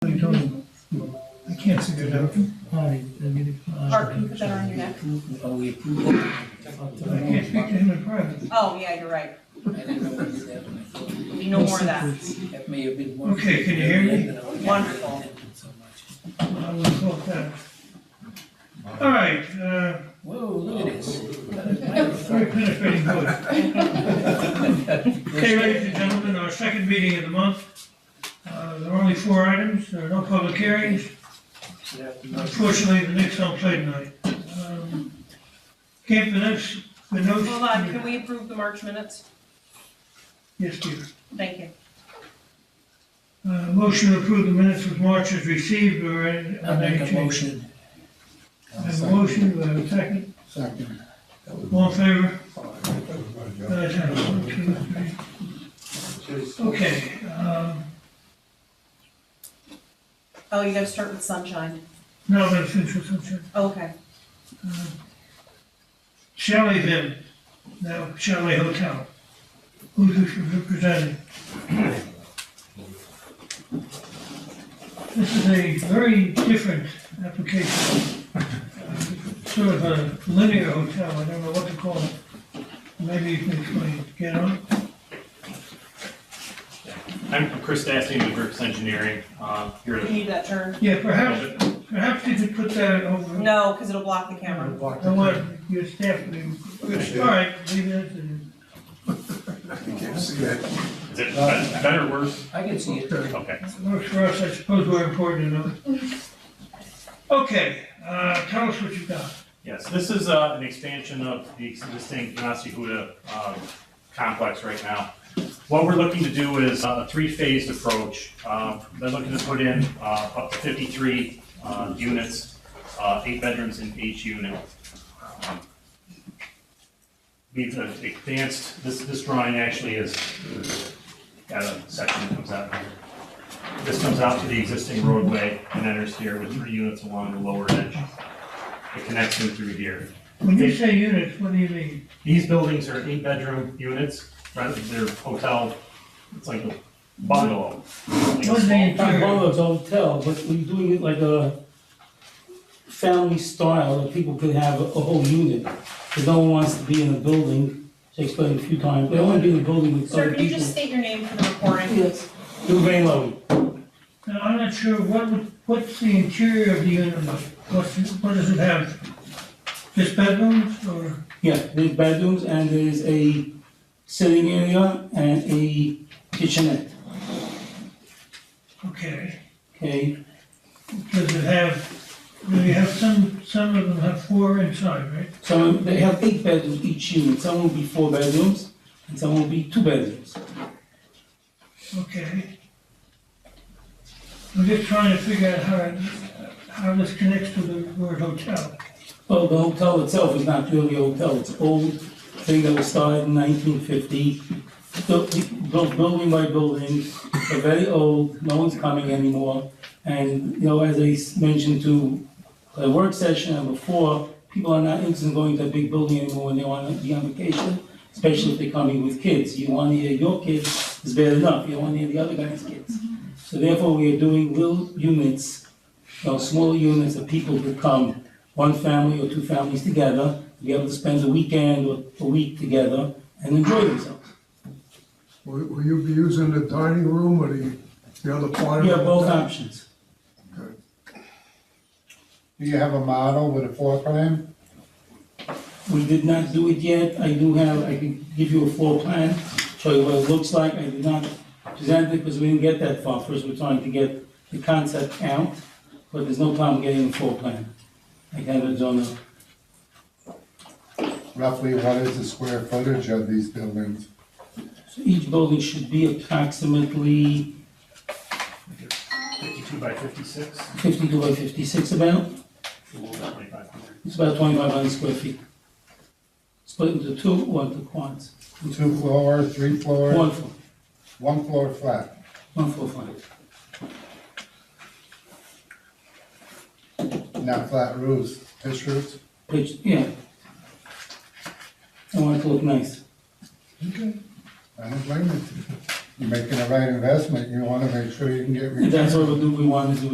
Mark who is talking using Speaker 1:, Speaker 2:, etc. Speaker 1: Can't see the document.
Speaker 2: Hi, I'm getting.
Speaker 3: Art, can you put that around your neck?
Speaker 2: Oh, we approve. it.
Speaker 1: I can't speak to him in private.
Speaker 3: Oh, yeah, you're right.
Speaker 2: I didn't know what did that when I thought
Speaker 3: There'll be no more of that.
Speaker 2: that may have been one.
Speaker 1: Okay, can you hear me?
Speaker 3: Wonderful.
Speaker 2: So much.
Speaker 1: I would have thought that. All right, uh,
Speaker 2: Whoa, look at this.
Speaker 1: very penetrating voice. Okay, ladies and gentlemen, our second meeting of the month. Uh, there are only four items, there are no public hearings. Unfortunately, the Knicks don't play tonight. Um, Camp Vinoch, Vinoch.
Speaker 3: Hold on, can we approve the March minutes?
Speaker 1: Yes, dear.
Speaker 3: Thank you.
Speaker 1: Uh, motion to approve the minutes of March is received or any?
Speaker 2: I make a
Speaker 1: any change?
Speaker 2: motion.
Speaker 1: I have a motion, do I have a second? Second. All in favor? Guys, have one, two, three. Okay, um,
Speaker 3: Oh, you gotta start with sunshine.
Speaker 1: now that's interesting.
Speaker 3: Okay.
Speaker 1: Shelley then, now Shelley Hotel. Who's this representing? This is a very different application. Uh, Sort of a linear hotel, I don't know what to call it. Maybe you can explain, get on?
Speaker 4: I'm Chris Dasty, with Brooks Engineering, uh, here
Speaker 3: You
Speaker 4: to.
Speaker 3: need that turn?
Speaker 1: Yeah, perhaps, perhaps you could put that over.
Speaker 3: No, because it'll block the camera.
Speaker 1: I want your staff to, all right, leave it and.
Speaker 4: Is it bet- better, worse?
Speaker 2: I can see it.
Speaker 4: Okay.
Speaker 1: Works for us, I suppose we're important enough. Okay, uh, tell us what you got.
Speaker 4: Yes, this is uh, an expansion of the existing Nasi Huda um, complex right now. What we're looking to do is uh, a three-phased approach. Uh, They're looking to put in uh, up to 53 uh, units, uh, eight bedrooms in each unit. Um, We've uh, advanced, this, this drawing actually is, got a section that comes out. This comes out to the existing roadway and enters here with three units along the lower edge. It connects them through here.
Speaker 1: When you say units, what do you mean?
Speaker 4: These buildings are eight-bedroom units, rather than their hotel, it's like a bungalow. Like a
Speaker 1: What's the
Speaker 4: small-
Speaker 5: Not
Speaker 1: interior?
Speaker 5: bungalows, hotel, but we're doing it like a family style, that people could have a whole unit. Because no one wants to be in a building, she explained a few times, they don't want to be in a building with
Speaker 3: Sir,
Speaker 5: other
Speaker 3: can you
Speaker 5: people.
Speaker 3: just state your name for the recording?
Speaker 5: Yes, Lou Van Lowy.
Speaker 1: Now, I'm not sure, what would, what's the interior of the unit like? What's, it- what does it have? Just bedrooms or?
Speaker 5: yeah, there's bedrooms and there's a sitting area and a kitchenette,
Speaker 1: Okay,
Speaker 5: okay?
Speaker 1: does it have, do you have some, some of them have four inside, right?
Speaker 5: So they have eight bedrooms each unit, some will be four bedrooms and some will be two bedrooms.
Speaker 1: Okay. I'm just trying to figure out how, how this connects to the word hotel.
Speaker 5: Well, the hotel itself is not really a hotel, it's an old thing that was started in nineteen fifty. Built, built building by building, they're very old, no one's coming anymore. And, you know, as I s- mentioned to the work session and before, people are not interested in going to a big building anymore when they want to be on vacation, especially if they're coming with kids. You want to hear your kids is bad enough, you want to hear the other guy's kids. So therefore, we are doing little units, you know, smaller units that people could come one family or two families together, to be able to spend a weekend or a week together and enjoy themselves.
Speaker 6: Will will you be using the dining room or the, the other part of
Speaker 5: We
Speaker 6: it?
Speaker 5: have both options.
Speaker 7: Do you have a model with a floor plan?
Speaker 5: We did not do it yet, I do have, I can give you a floor plan, show you what it looks like, I did not present it because we didn't get that far, first we're trying to get the concept out, but there's no problem getting a floor plan. I have it on the,
Speaker 7: Roughly what is the square footage of these buildings?
Speaker 5: so each building should be approximately
Speaker 4: 52 by 56,
Speaker 5: fifty-two by fifty-six about,
Speaker 4: a little over 2,500.
Speaker 5: it's about twenty-five hundred square feet. Split into two or into quads.
Speaker 7: Two floor, three floor,
Speaker 5: One floor,
Speaker 7: one floor flat?
Speaker 5: one floor flat.
Speaker 7: Not flat roofs, pitch roofs?
Speaker 5: Which, yeah. I want it to look nice.
Speaker 7: Okay. I don't blame you. You're making the right investment, you wanna make sure you can get.
Speaker 5: And that's what we do, we want to do